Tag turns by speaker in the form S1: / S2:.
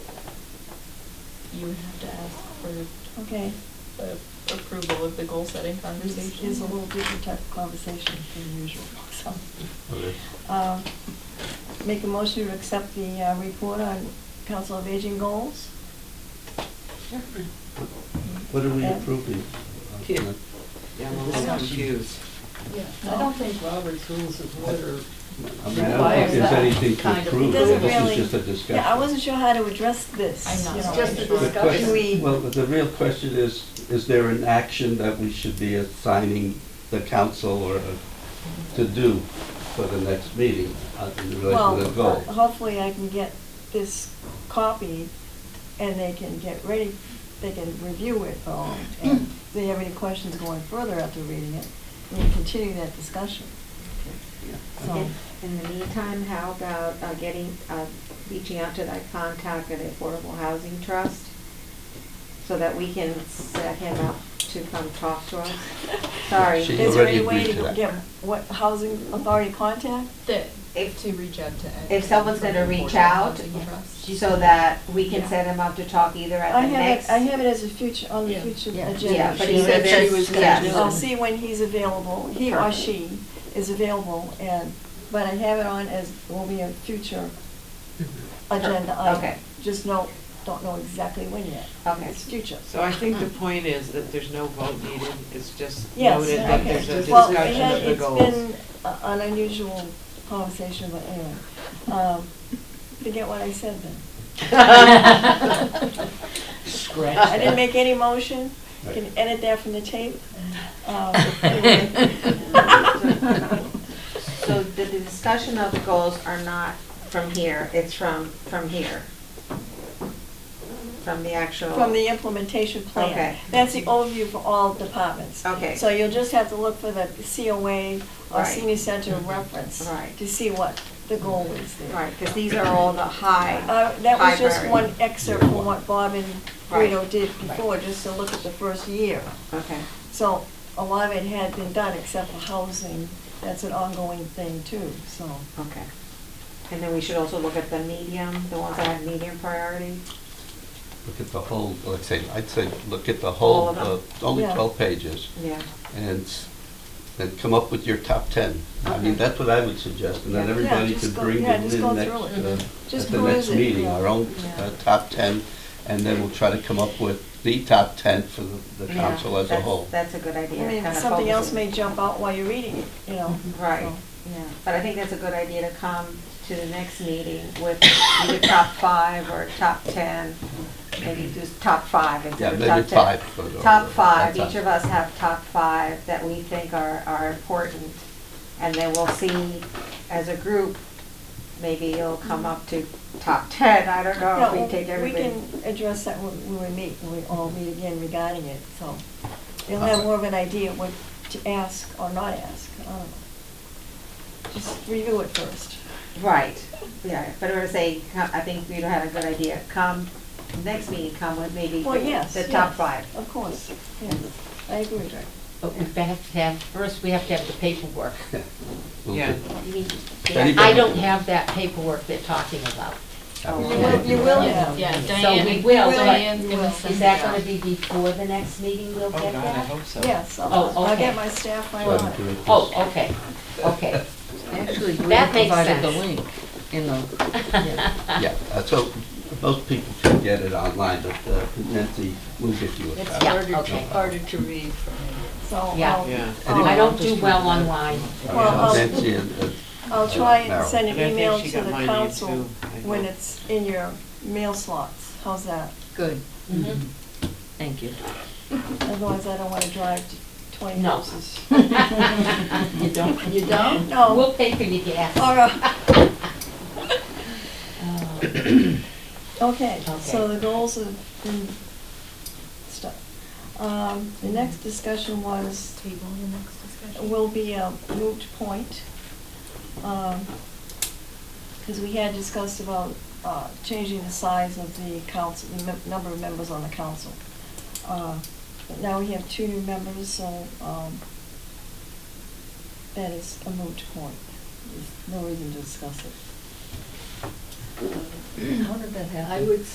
S1: you would have to ask
S2: Okay,
S1: for the approval of the goal-setting
S2: this
S1: conversation.
S2: is a little different type of conversation than usual, so.
S3: Okay.
S2: uh, Make a motion to accept the uh, report on Council of Aging goals.
S4: What did we
S2: Yeah.
S4: approve?
S5: Here. Yeah, I'm a little confused.
S6: Yeah, I don't think Robert's rules of order
S4: I mean, I don't think
S6: requires
S4: there's
S6: that
S4: anything
S6: kind
S4: to
S6: of.
S4: approve,
S2: It doesn't
S4: this
S2: really-
S4: is just a discussion.
S2: Yeah, I wasn't sure how to address this.
S1: I'm not
S2: you know.
S6: It's just a
S1: sure.
S4: The
S6: discussion.
S4: question-
S2: Can we-
S4: Well, the real question is, is there an action that we should be assigning the council or uh, to do for the next meeting uh, in relation to the
S2: Well,
S4: goal?
S2: hopefully I can get this copied and they can get ready, they can review it all. And if they have any questions going further after reading it, we can continue that discussion. So,
S7: Okay. In the meantime, how about uh, getting, uh, reaching out to that contact at Affordable Housing Trust so that we can set him up to come talk to us? Sorry.
S4: She
S2: is there any
S4: already
S2: way
S4: agreed to
S2: to
S4: that.
S2: get what housing authority contact?
S1: That,
S7: If-
S1: to reach out to.
S7: If someone's gonna reach out, so that we can set him up to talk either
S2: I
S7: at the
S2: have
S7: next.
S2: it, I have it as a future, on the
S1: Yeah.
S2: future
S6: Yeah.
S2: agenda.
S7: Yeah, but
S2: She
S7: he
S2: said
S7: said
S2: she
S7: this-
S2: was gonna
S7: yes.
S2: do it. I'll see when he's available, he or she is available, and, but I have it on as, will be a future agenda item.
S7: Okay.
S2: Just no, don't know exactly when yet.
S7: Okay.
S2: It's future.
S5: So I think the point is that there's no vote needed, it's just
S2: Yes,
S5: noted that
S2: okay.
S5: there's a
S2: Well, it
S5: discussion
S2: had-
S5: of the goals.
S2: It's been a- an unusual conversation, but anyway, um, forget what I said then.
S6: Scratch
S2: I didn't
S6: that.
S2: make any motion, You can
S4: Right.
S2: edit that from the tape. Um,
S7: So the the discussion of the goals are not from here, it's from, from here. From the actual.
S2: From the implementation plan.
S7: Okay.
S2: That's the overview for all departments.
S7: Okay.
S2: So you'll just have to look for the COA or
S7: Right. Mm-hmm.
S2: senior center reference.
S7: Right.
S2: To see what the goal is there.
S7: Right, because these are all the high.
S2: Uh, That was just
S7: high
S2: one
S7: priority.
S2: excerpt from what Bob and
S7: Right.
S2: Guido did before, just to look at the first year.
S7: Okay.
S2: So a lot of it had been done, except for housing. That's an ongoing thing too, so.
S7: Okay. And then we should also look at the medium, the ones that have medium priority.
S4: Look at the whole, let's say, I'd say, look at the whole,
S7: All of them.
S4: uh, only
S2: Yeah.
S4: 12 pages,
S7: Yeah.
S4: and, s- and come up with your top 10. I mean,
S7: Okay.
S4: that's what I would suggest, and then
S7: Yeah. Yeah,
S4: everybody
S2: just
S4: could
S2: go-
S4: bring
S2: yeah,
S4: them
S2: just
S4: in
S2: go
S4: next,
S2: through it.
S4: uh,
S2: Just
S4: at the
S2: peruse
S4: next
S2: it,
S4: meeting,
S2: yeah.
S4: our own
S7: Yeah.
S4: uh, top 10, and then we'll try to come up with the top 10 for the- the
S7: Yeah,
S4: council as a
S7: that's-
S4: whole.
S7: That's a good
S2: I
S7: idea.
S2: mean,
S7: kinda
S2: something else
S7: focus it.
S2: may jump out while you're reading it, you know.
S7: Right,
S2: so.
S7: yeah. But I think that's a good idea to come to the next meeting with either top five or top 10. Maybe just top five
S4: Yeah,
S7: instead of top 10.
S4: maybe five. for the-
S7: Top five,
S4: that's
S7: each of us have top five that we think are, are important. And then we'll see, as a group, maybe it'll come up to top ten, I don't know, if
S2: No,
S7: we take
S2: We
S7: everybody.
S2: can address that when when we meet, when we all meet again regarding it, so you'll
S5: Uh-huh.
S2: have more of an idea what to ask or not ask, I don't know. Just review it first.
S7: Right, yeah, but I would say, co- I think we had a good idea, come, next meeting, come with maybe
S2: Well, yes.
S7: the
S2: yes,
S7: top five.
S2: Of course, yes, I agree.
S6: But we have to have, first we have to have the paperwork.
S4: We'll
S5: Yeah.
S4: do-
S7: You mean-
S4: Anybody-
S6: I don't have that paperwork they're talking about.
S7: Oh,
S2: You will, you will have.
S1: Yeah,
S6: So
S1: Diane.
S6: we will, but-
S1: Diane's
S2: You will.
S1: gonna send
S6: Is
S1: it
S6: that
S1: out.
S6: gonna be before the next meeting we'll
S5: Oh,
S6: get
S5: God, I
S6: that?
S5: hope so.
S2: Yes, I'll,
S6: Oh,
S2: I'll get
S6: okay.
S2: my staff right
S4: Try to
S2: on
S4: do
S2: it.
S4: it this-
S6: Oh, okay, okay.
S8: Actually, Bree
S6: That makes
S8: provided the
S6: sense.
S8: link in the, yeah.
S4: Yeah, uh, so most people can get it online, but uh, Nancy will get you a
S6: It's,
S4: copy.
S6: yeah, okay.
S5: harder to read from
S2: So
S6: Yeah.
S2: I'll,
S5: Yeah.
S4: Anyway,
S6: I don't do well online.
S2: Well, I'll-
S4: Nancy and, uh,
S2: I'll try and
S4: Merrill.
S2: send
S5: And
S2: an
S5: I think
S2: email
S5: she
S2: to
S5: got
S2: the
S5: my name,
S2: council
S5: too, I
S2: when
S5: hope.
S2: it's in your mail slots, how's that?
S8: Good.
S6: Mhm.
S8: Mm-hmm. Thank you.
S2: Otherwise, I don't want to drive to twenty
S6: No.
S2: houses.
S6: You don't? You don't?
S2: No.
S6: We'll pay for your gas.
S2: All right,
S6: Oh.
S2: okay, so
S6: Okay.
S2: the goals of, mm, stuff. Um, the next discussion was,
S1: Table the next discussion.
S2: will be a moot point. Because we had discussed about uh, changing the size of the council, the mem- number of members on the council. Uh, But now we have two new members, so um, that is a moot point. There's no reason to discuss it.
S8: How did that happen?
S6: I would